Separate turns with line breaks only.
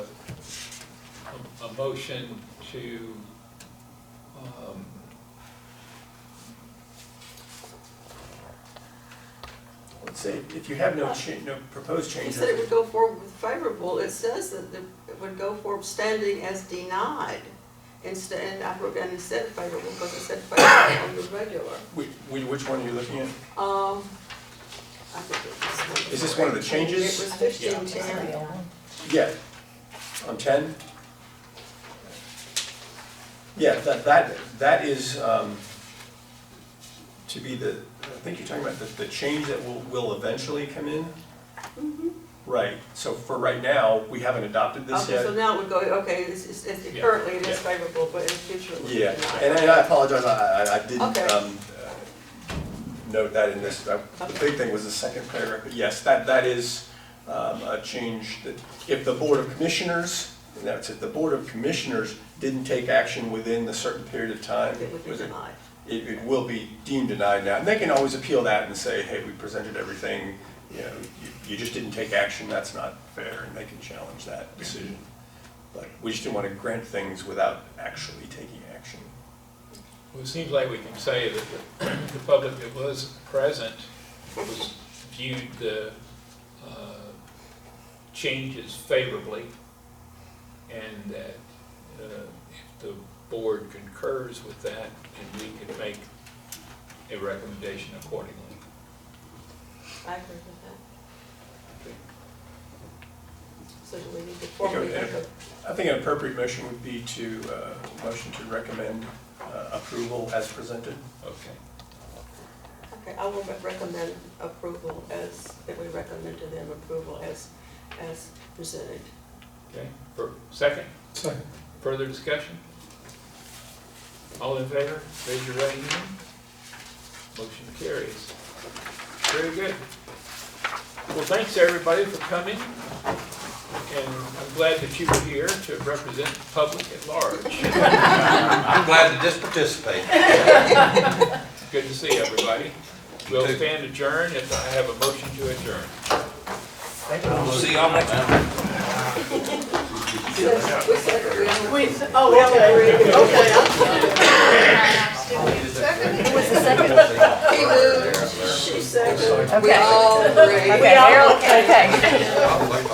a motion to, um,
Let's say, if you have no cha, no proposed
He
changes.
said it would go forward with favorable, it says that the- it would go forward standing as denied. Instead, and I wrote down instead favorable, because it said favorable on the regular.
Which, which one are you looking at?
Um, I think it was.
Is this one of the changes?
It was fifteen ten.
Yeah, on ten? Yeah, that, that, that is, um, to be the, I think you're talking about the, the change that will, will eventually come in?
Mm-hmm.
Right, so for right now, we haven't adopted this
Okay,
yet.
so now it would go, okay, it's, it's, it's-
Yeah,
currently it is
yeah.
favorable, but in future it would be
Yeah,
denied.
and and I apologize, I, I- I didn't
Okay.
um, uh, note that in this, Uh, the big thing was the second paragraph, but yes, that, that is um, a change that, if the Board of Commissioners, and that's if the Board of Commissioners didn't take action within a certain period of time,
It would be
was it-
denied.
it, it will be deemed denied now. And they can always appeal that and say, hey, we presented everything, you know, you- you just didn't take action, that's not fair, and they can challenge that decision. But we just didn't want to grant things without actually taking action.
well, it seems like we can say that the, the public that was present was viewed the, uh, changes favorably, and that, uh, if the board concurs with that, then we could make a recommendation accordingly.
I agree with that.
Okay.
So do we need to formally
Okay.
make a
I think an appropriate motion would be to, uh, motion to recommend uh, approval as presented.
Okay.
Okay, I will re- recommend approval as, that we recommend to them approval as, as presented.
Okay, for, second? Further discussion? All in favor, raise your right hand. Motion carries. Very good. Well, thanks everybody for coming, and I'm glad that you were here to represent the public at large.
I'm glad to just participate.
Good to see everybody. We'll stand adjourned if I have a motion to adjourn.
We'll see y'all next time.
We said- we said that we don't-
Wait, oh, okay.
Okay, I'm-
Who was the second?
he moved, she said, we
Okay.
all agree.
Okay, okay.